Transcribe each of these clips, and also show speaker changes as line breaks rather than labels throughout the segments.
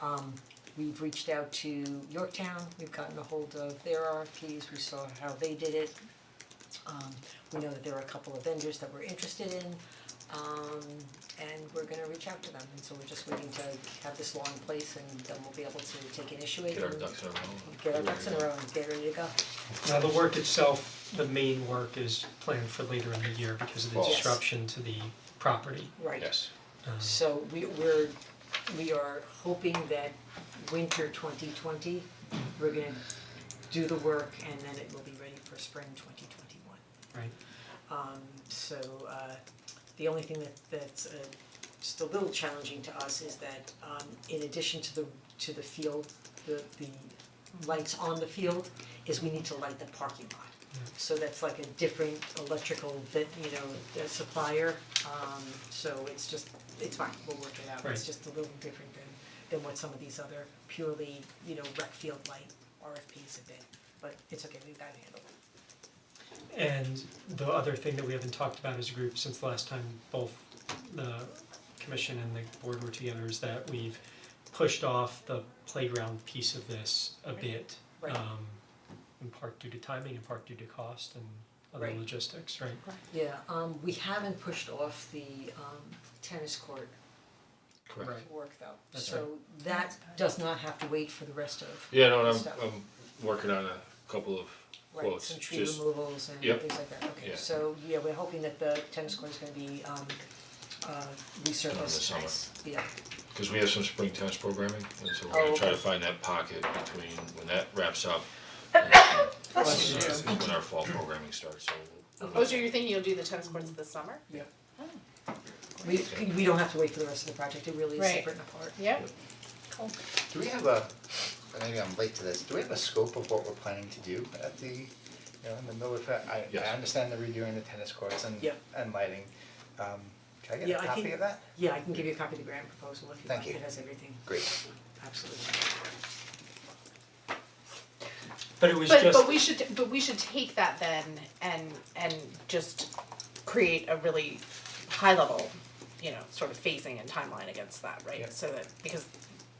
Um we've reached out to Yorktown, we've gotten a hold of their RFPs, we saw how they did it. Um we know that there are a couple of vendors that we're interested in, um and we're gonna reach out to them, and so we're just waiting to have this law in place and then we'll be able to take and issue it
Get our
and
ducks in a row.
get our ducks in a row and get ready to go.
Now, the work itself, the main work is planned for later in the year because of the
Fall. Yes.
disruption to the property. Um,
Right.
Yes,
So we we're, we are hoping that winter twenty twenty, we're gonna do the work and then it will be ready for spring twenty twenty one.
Right.
Um so uh the only thing that that's uh just a little challenging to us is that um in addition to the to the field, the the lights on the field is we need to light the parking lot. So that's like a different electrical that, you know, uh, supplier, um so it's just, it's fine, we'll work it out, it's
Right.
just a little different than than what some of these other purely, you know, rec field light RFPs have been, but it's okay, we've got it handled.
And the other thing that we haven't talked about as a group since the last time both the commission and the board were together is that we've pushed off the playground piece of this a bit.
Right.
Um, in part due to timing, in part due to cost and other
Right.
logistics, right?
Yeah, um we haven't pushed off the um tennis court
correct.
Right.
work though,
That's
so that does not have to wait for the rest of,
Yeah, no, and I'm,
Stuff.
I'm working on a couple of
right,
quotes,
some tree
just,
removals and
Yep.
things like that, okay,
Yeah.
so yeah, we're hoping that the tennis court is gonna be um uh resurfaced.
Done in the summer.
Yeah,
cause we have some spring tennis programming, and
Oh,
so we're gonna try to
okay.
find that pocket between when that wraps up. and When when our fall programming starts, so. we'll-
Oh, so you're thinking you'll do the tennis courts this summer?
we we don't have to wait for the rest of the project, it really is
Right.
separate and apart.
Yep.
Do we have a, maybe I'm late to this, do we have a scope of what we're planning to do at the, you know, in the middle of, I I
Yes.
understand the redoing the tennis courts and
Yep.
and lighting. Um, can I
Yeah,
get
I
a copy
think-
of that?
Yeah, I can give you a copy of the grant proposal if you
Thank
like,
you.
it has everything,
Great,
absolutely.
But it was
But
just,
but we should but we should take that then and and just create a really high level, you know, sort of phasing and timeline against that, right?
Yep.
So that because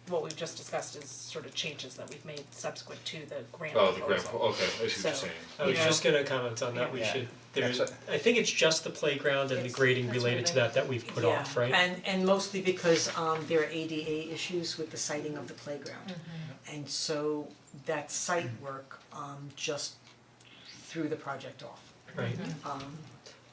what we've just discussed is sort of changes that we've made subsequent to the grant
Oh, the
proposal.
grant, okay, I see what you're
So-
saying,
I was
you know-
just gonna comment on that, we
Yeah.
should, there's,
That's what-
I think it's just the playground and the
It's-
grading
that's what
related to
I-
that that we've put off, right?
Yeah, and and mostly because um there are ADA issues with the siting of the playground. And so that site work um just threw the project off.
Right,
Mhm.
Um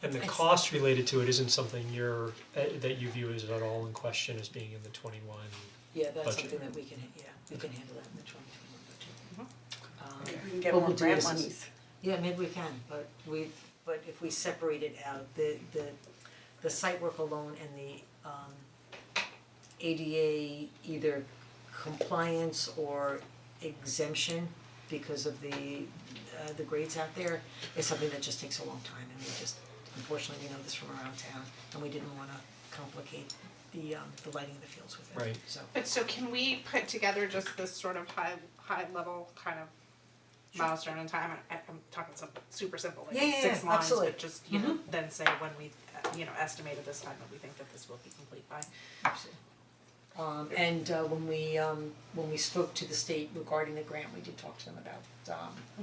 and the
It's-
cost related to it isn't something you're, uh, that that you view as at all in question as being in the twenty-one.
yeah, that's
Budget.
something that we can, yeah, we can handle that in the twenty twenty one budget. Um
Uh-huh. We can get
What
more
we'll do
grant
is-
monies.
yeah, maybe we can, but we've, but if we separate it out, the the the site work alone and the um ADA either compliance or exemption because of the uh the grades out there is something that just takes a long time and we just unfortunately we know this from around town and we didn't wanna complicate the um the lighting of the fields with it,
Right.
so.
But so can we put together just this sort of high, high level kind of milestone in time, I I'm talking some super simple,
Yeah, yeah,
like six
yeah,
lines,
absolutely. Mm-hmm.
but just, you know, then say when we, uh, you know, estimated this time that we think that this will be complete by.
Um and uh when we um when we spoke to the state regarding the grant, we did talk to them about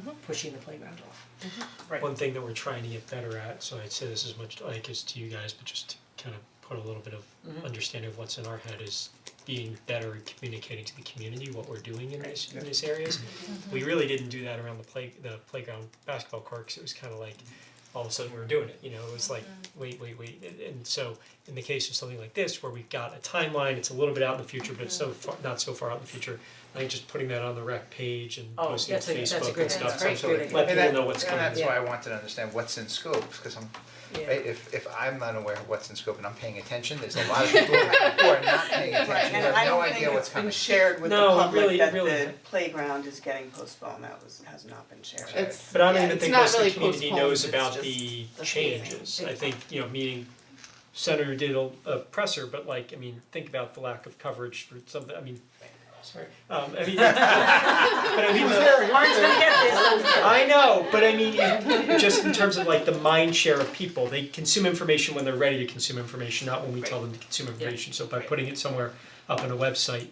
um pushing the playground off.
One thing that we're trying to get better at, so I'd say this as much like as to you guys, but just to kind of put a little bit of
Mm-hmm.
understanding of what's in our head is being better at communicating to the community what we're doing in these, in these areas.
Mm-hmm.
We really didn't do that around the play, the playground basketball court, 'cause it was kind of like, all of a sudden we were doing it, you know, it was like,
Mm-hmm.
wait, wait, wait, and, and so in the case of something like this, where we've got a timeline, it's a little bit out in the future, but it's so
Mm-hmm.
far, not so far out in the future, I think just putting that on the rec page and
Oh,
posting on
that's a- that's a
Facebook and
great-
stuff,
that's great,
so
great idea.
let
and
people
that,
know what's
and
coming.
that's why I want to understand what's in scope, because I'm,
Mm-hmm.
right, if if I'm not aware of what's in scope and I'm paying attention, there's a lot of people who are not paying attention, who
And
have
I
no
don't
idea
think
what's
it's
coming.
been shared with the
No, really-
public that
really.
the playground is getting postponed, that was, has not been shared.
It's,
But I
yeah,
don't even
it's
think
not
most of the
really
community
postponed,
knows
it's
about
just
the
the
changes,
phasing.
I think, you know, meaning Senator did a a presser, but like, I mean, think about the lack of coverage for something, I mean, sorry, um, I mean, but I mean, the- I know, but I mean, it- just in terms of like the mind share of people, they consume information when they're ready to consume information, not when we tell them to consume information. So by putting it somewhere up on a website,